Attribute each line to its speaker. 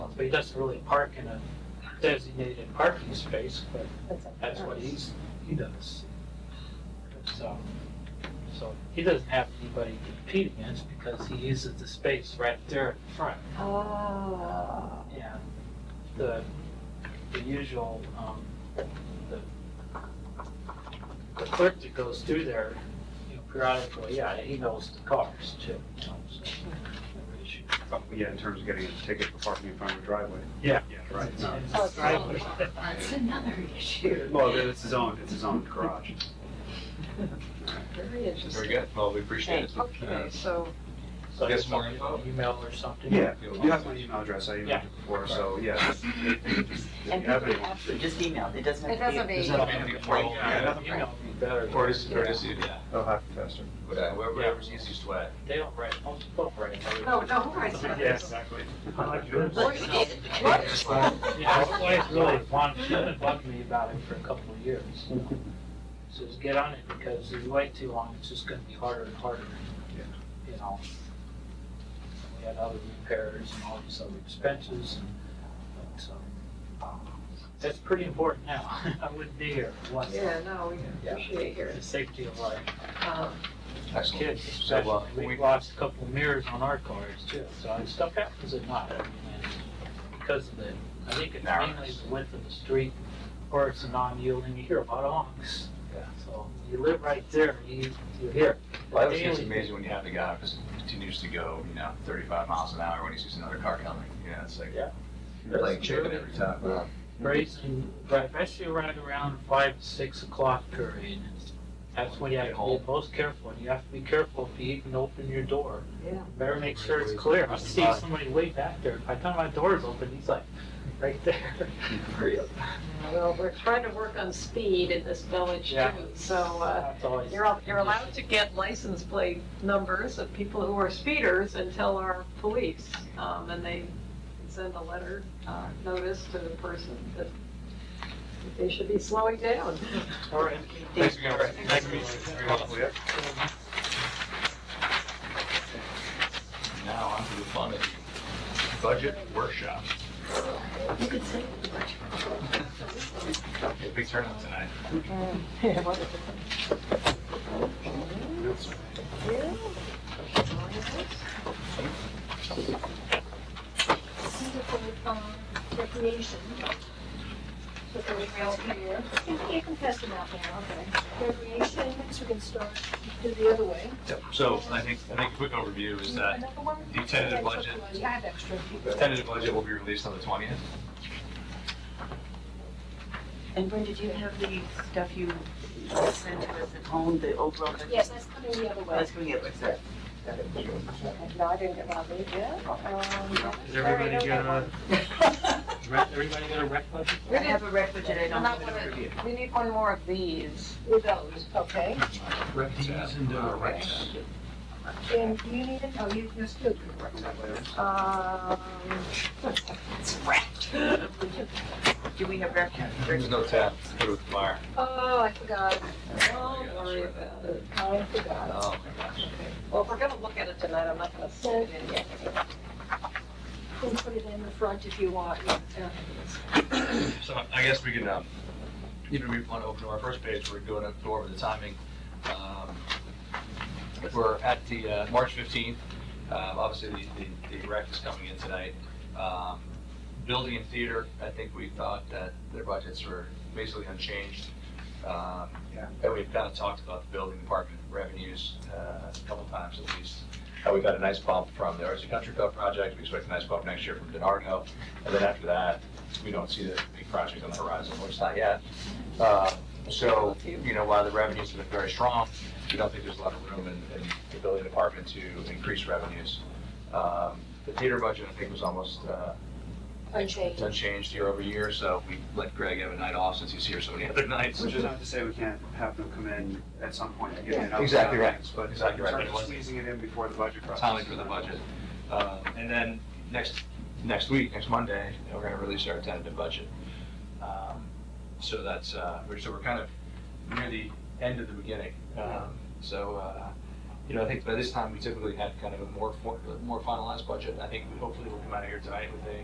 Speaker 1: but he doesn't really park in a designated parking space, but
Speaker 2: That's it.
Speaker 1: that's what he's, he does. So, so he doesn't have anybody to compete against because he uses the space right there in front.
Speaker 2: Ah,
Speaker 1: Yeah, the, the usual, um, the, the clerk that goes through there, you know, periodically, yeah, he knows the cars too, you know, so. no issue.
Speaker 3: Yeah, in terms of getting a ticket for parking in front of a driveway.
Speaker 1: Yeah.
Speaker 3: Yeah, right. No.
Speaker 2: Oh, it's
Speaker 1: Driveway.
Speaker 4: That's another issue.
Speaker 3: Well, then it's his own, it's his own garage.
Speaker 4: Very
Speaker 5: Very
Speaker 4: interesting.
Speaker 5: good, well, we appreciate it. Uh,
Speaker 4: Okay, so,
Speaker 1: So
Speaker 5: Get
Speaker 1: it's
Speaker 5: some more
Speaker 1: like
Speaker 5: info?
Speaker 1: an Email or something.
Speaker 3: Yeah, you have my email address, I emailed
Speaker 1: Yeah.
Speaker 3: you before, so yeah. just- if you
Speaker 6: And
Speaker 3: have
Speaker 6: people
Speaker 3: any-
Speaker 6: actually just emailed, it doesn't
Speaker 2: it
Speaker 6: have to
Speaker 2: doesn't
Speaker 6: be.
Speaker 2: be,
Speaker 5: Nothing to be formal,
Speaker 1: Yeah,
Speaker 5: yeah.
Speaker 1: nothing email would be better.
Speaker 5: Or just, or just, yeah,
Speaker 3: They'll have to test it.
Speaker 5: uh, whatever, whatever's easiest way.
Speaker 1: They don't write, most people don't write.
Speaker 4: no, no, who writes that?
Speaker 3: Yeah, exactly. I like yours.
Speaker 4: What?
Speaker 5: What?
Speaker 1: Yeah, my wife really wanted, she been bugging me about it for a couple of years. Says, get on it, because if you wait too long, it's just gonna be harder and harder,
Speaker 3: Yeah.
Speaker 1: you know? We had other repairs and all these other expenses, and so, um, that's pretty important now. I wouldn't be here if it wasn't.
Speaker 4: Yeah, no, we appreciate
Speaker 1: The
Speaker 4: yours.
Speaker 1: safety of life,
Speaker 4: Um,
Speaker 5: Excellent.
Speaker 1: kids
Speaker 5: So, uh,
Speaker 1: especially, we
Speaker 5: we,
Speaker 1: lost a couple of mirrors on our cars too, so stuff happens at night. and Because of the, I think it's mainly
Speaker 5: Narrowness.
Speaker 1: the width of the street, or it's a non-yielding, you hear about honks.
Speaker 5: Yeah.
Speaker 1: So you live right there, you, you hear.
Speaker 5: well, I always think it's
Speaker 1: daily.
Speaker 5: amazing when you have the guy who just continues to go, you know, thirty-five miles an hour when he sees another car coming, you know, it's like,
Speaker 1: Yeah.
Speaker 5: you're like chicken every time. Wow.
Speaker 1: Grazing, right, especially right around five, six o'clock period. That's when you have to be most careful, and you have to be careful if you even open your door.
Speaker 4: Yeah.
Speaker 1: Better make sure it's clear. I see somebody way back there. By the time my door's open, he's like, right there.
Speaker 4: Well, we're trying to work on speed in this village
Speaker 1: Yeah.
Speaker 4: too, so, uh,
Speaker 1: That's always.
Speaker 4: you're, al- you're allowed to get license plate numbers of people who are speeders until our police, um, and they send a letter, uh, notice to the person that they should be slowing down.
Speaker 1: All right.
Speaker 5: Thanks again, Rick. Nice to meet you. Very helpful, yeah. Now, on to the fun of you. budget workshop.
Speaker 6: You could say.
Speaker 5: Yeah, Big turnout tonight.
Speaker 7: Center for um, Recreation. So they're all here. You can- You can pass them out now, okay. Recreation, so we can start, do the other way.
Speaker 5: So I think, I think a quick overview is that
Speaker 7: Another one?
Speaker 5: the tentative budget,
Speaker 7: I have extra.
Speaker 5: the tentative budget will be released on the twentieth.
Speaker 6: And Brenda, do you have the stuff you sent to us at home, the overall?
Speaker 7: Yes, that's coming the other way.
Speaker 6: Let's bring it, sir.
Speaker 7: No, I didn't get my lead yet.
Speaker 1: Did everybody get a, rec- everybody get a rec budget?
Speaker 6: I have a rec budget, I don't
Speaker 2: And
Speaker 6: have
Speaker 2: that
Speaker 6: it
Speaker 2: one
Speaker 6: for you.
Speaker 2: we need one more of these.
Speaker 7: With those, okay.
Speaker 1: Rec and, uh,
Speaker 5: Right.
Speaker 7: And do you need it? Oh, you, you're still good.
Speaker 4: Um,
Speaker 6: It's wrapped. Do we have rec?
Speaker 5: There's no tab, put it with the fire.
Speaker 4: oh, I forgot. Don't worry about it.
Speaker 7: I forgot.
Speaker 5: Oh, my gosh.
Speaker 4: Well, if we're gonna look at it tonight, I'm not gonna send it in yet.
Speaker 7: You can put it in the front if you want.
Speaker 5: So I guess we can, um, even if we want to open to our first page, we're going to go over the timing. Um, We're at the, uh, March fifteenth, uh, obviously the, the, the rec is coming in tonight. Um, Building and theater, I think we thought that their budgets were basically unchanged. Um,
Speaker 3: Yeah.
Speaker 5: And we've kind of talked about the building department revenues, uh, a couple times at least. Uh, we got a nice bump from the Arts and Country Club project, we expect a nice bump next year from DiNardo. And then after that, we don't see the big project on the horizon, or it's not yet. Uh, So, you know, while the revenues have been very strong, we don't think there's a lot of room in, in the building department to increase revenues. Um, The theater budget, I think, was almost uh,
Speaker 7: Unchanged.
Speaker 5: unchanged year over year, so we let Greg have a night off since he's here so many other nights.
Speaker 3: Which is not to say we can't have them come in at some point and give you an update.
Speaker 5: Exactly right.
Speaker 3: But in
Speaker 5: Exactly right.
Speaker 3: terms of squeezing it in before the budget process.
Speaker 5: timing for the budget. Uh, And then next, next week, next Monday, you know, we're going to release our tentative budget. Um, So that's, uh, we're, so we're kind of near the end of the beginning. Um, So, uh, you know, I think by this time, we typically had kind of a more, for- more finalized budget. I think hopefully we'll come out of here tonight with a